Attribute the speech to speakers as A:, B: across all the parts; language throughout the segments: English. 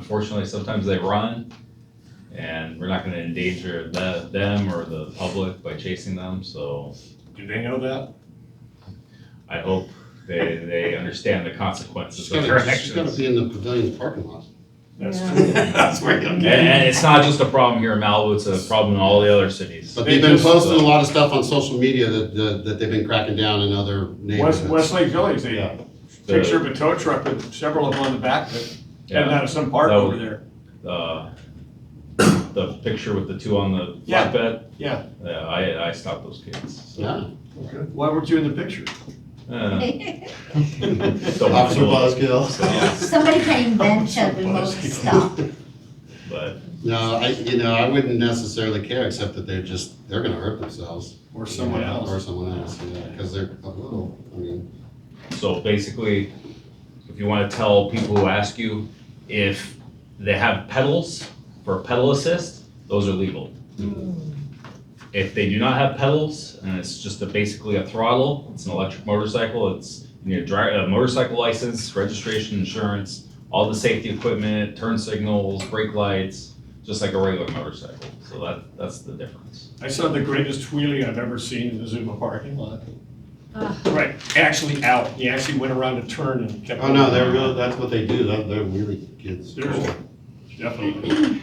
A: unfortunately, sometimes they run. And we're not gonna endanger the, them or the public by chasing them, so
B: Do they know that?
A: I hope they, they understand the
C: She's
A: consequences of their
C: gonna, she's gonna
A: actions.
C: be in the pavilion's parking lot.
B: That's
D: Yeah.
B: true. That's where you'll
A: And,
B: get.
A: and it's not just a problem here in Malibu, it's a problem in all the other cities.
C: But
B: They
C: they've been
B: just-
C: posting a lot of stuff on social media that, that, that they've been cracking down in other
B: West,
C: neighborhoods.
B: Westlake Village,
C: Yeah.
B: they
A: The-
B: picture of a tow truck with several of them on the back that
A: yeah.
B: heading out of some park
A: That
B: over
A: would-
B: there.
A: uh, the picture with the two on the
B: Yeah,
A: flatbed.
B: yeah.
A: Yeah, I, I stopped those kids. so.
C: Yeah.
B: Why weren't you in the picture?
A: Uh, don't
C: Officer
A: know,
C: Buzzkill.
D: Somebody can invent a remote stop.
A: But,
C: No, I, you know, I wouldn't necessarily care, except that they're just, they're gonna hurt themselves.
B: Or someone
A: Yeah.
C: Or
B: else?
C: someone else, yeah, because they're a little, I mean,
A: so basically, if you wanna tell people who ask you if they have pedals for pedal assist, those are legal. If they do not have pedals, and it's just a, basically a throttle, it's an electric motorcycle, it's, you need a dri- a motorcycle license, registration, insurance, all the safety equipment, turn signals, brake lights, just like a regular motorcycle, so that, that's the difference.
B: I saw the greatest wheelie I've ever seen in the Zuma parking lot.
D: Ah.
B: Right, actually out. He actually went around a turn and kept.
C: oh no, they're really, that's what they do, they're, they're really kids.
B: There's- Definitely.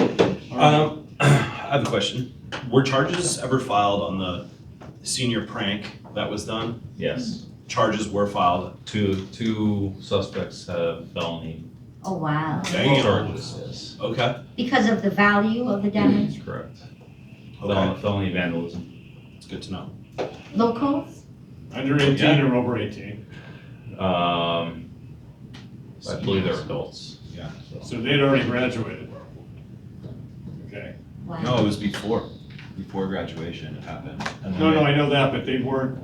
B: All right.
E: Um, I have a question. Were charges ever filed on the senior prank that was done?
A: Yes,
E: Hmm. Charges were filed.
A: two, two suspects have felony
D: Oh, wow.
E: Dang it.
A: charges, yes,
E: Okay.
D: Because of the value of the damage,
A: that's correct.
E: Okay.
A: Fel- Felony vandalism,
E: It's good to know.
D: locals?
B: Under eighteen or over eighteen,
A: um, I believe they're adults.
E: Yeah.
A: So-
B: so they'd already graduated. Okay.
E: No,
D: Wow.
E: it was before, before graduation it happened. And then
B: No, no,
E: they-
B: I know that, but they weren't,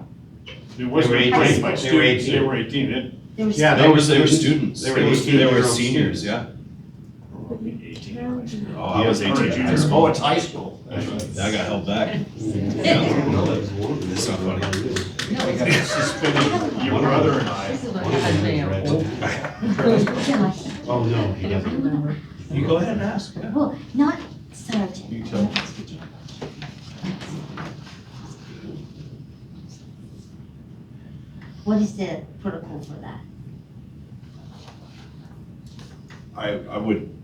B: there wasn't
C: were
B: a
C: 18.
B: break by
C: They were
B: students, they
C: 18.
B: were eighteen, it,
D: There was-
C: Yeah,
E: They were, they were students.
C: They were
E: They were, they were
C: 18-year-old
E: seniors,
C: students.
E: yeah.
B: eighteen. or high school.
E: Oh, I was
B: Yeah,
E: eighteen in high school.
B: Oh, it's high school. That's right.
E: I got held back. It's not funny.
B: Suspended your brother and I.
D: Josh,
C: Oh, no, he doesn't.
E: You go ahead and ask, yeah.
D: well, not sergeant.
E: You tell.
D: What is the protocol for that?
E: I, I would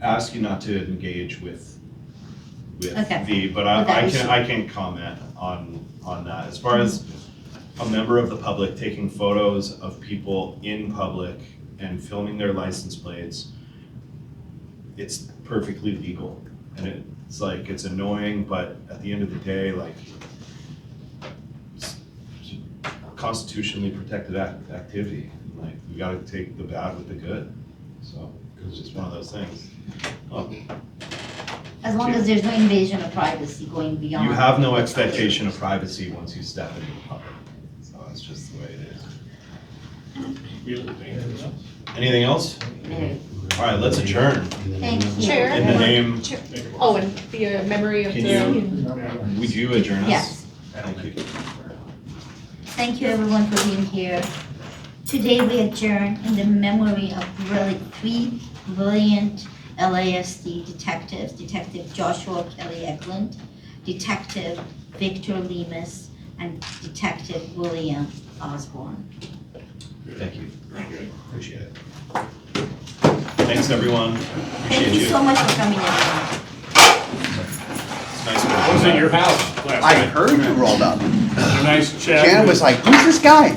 E: ask you not to engage with, with
D: Okay.
E: the, but
D: But that
E: I, I
D: was-
E: can, I can comment on, on that. As far as a member of the public taking photos of people in public and filming their license plates, it's perfectly legal. And it's like, it's annoying, but at the end of the day, like, it's constitutionally protected act, activity. Like, we gotta take the bad with the good, so. It's just one of those things. Um,
D: As long as there's no invasion of privacy going beyond.
E: You have no expectation of privacy once you step into the public. So that's just the way it is.
B: Really dangerous.
E: Anything else?
D: No.
E: All right, let's adjourn.
D: Thank you.
F: Chair?
E: In the name,
F: Oh, and the uh, memory of
E: Can
F: the.
E: you- would you adjourn us?
D: Yes.
E: Thank you.
D: Thank you everyone for being here. Today we adjourn in the memory of really three brilliant LASD detectives, Detective Joshua Kelly Eklund, Detective Victor Lemus, and Detective William Osborne.
E: Thank you. Appreciate it. Thanks, everyone. Appreciate
D: Thank you
E: you.
D: so much for coming everyone.
E: It's nice.
B: I was at your house last
G: I
B: night.
G: heard you rolled up.
B: A Nice chat.
G: Janet was like, who's this guy?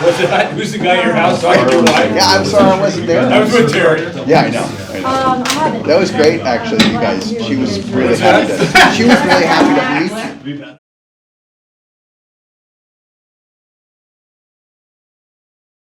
B: Was it, who's the guy at your house? I don't know why.
G: Yeah, I'm sorry I wasn't
B: That
G: there.
B: was with Terry.
G: Yeah, I know. I know.
F: Um, I haven't.
G: That was great, actually, you guys. She was really happy. to- She was really happy to meet you.
E: We've had-